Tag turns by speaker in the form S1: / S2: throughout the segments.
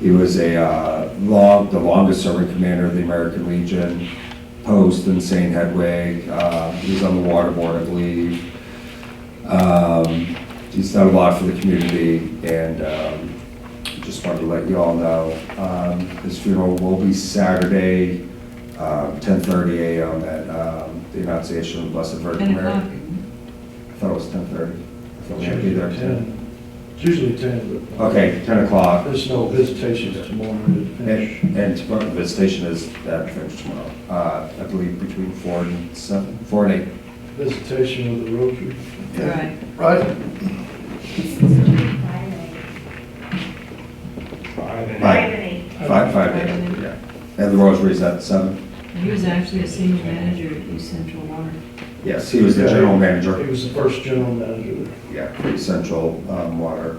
S1: He was a, uh, long, the longest serving commander of the American Legion, post in St. Hedwig. Uh, He was on the water board, I believe. Um, He's done a lot for the community, and um, just wanted to let you all know. um, His funeral will be Saturday, um, 10:30 a.m. at um, the Annunciation of the Blessed Virgin
S2: Ten
S1: Mary.
S2: o'clock.
S1: I thought it was 10:30. I thought we had to be there at 10.
S3: It's usually ten, but.
S1: Okay, 10 o'clock.
S3: There's no visitations tomorrow to finish.
S1: And, and tomorrow, the station is at Finch tomorrow, uh, I believe between four and seven, four and eight.
S3: Visitation with the Rotary.
S2: Right.
S3: Right?
S1: Five. Five, five, to eight, yeah. And the rosary is at seven?
S2: He was actually a senior manager at East Central Water.
S1: Yes, he was the general manager,
S3: He was the first general manager.
S1: yeah, for Central, um, Water.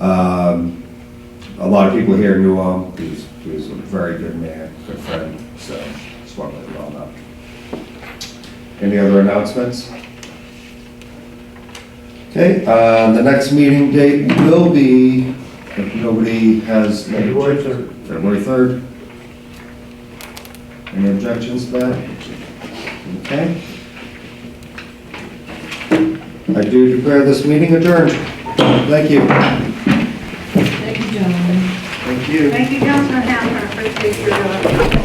S1: Um, a lot of people here knew him, he was, he was a very good man, good friend, so just wanted to let you all know. Any other announcements? Okay, uh, the next meeting date will be, if nobody has. any
S3: February third.
S1: February 3rd. Any objections to that? Okay. I do declare this meeting adjourned. Thank you.
S2: Thank you, gentlemen.
S1: Thank you.
S4: Thank you, Councilman Howard, I appreciate your, uh,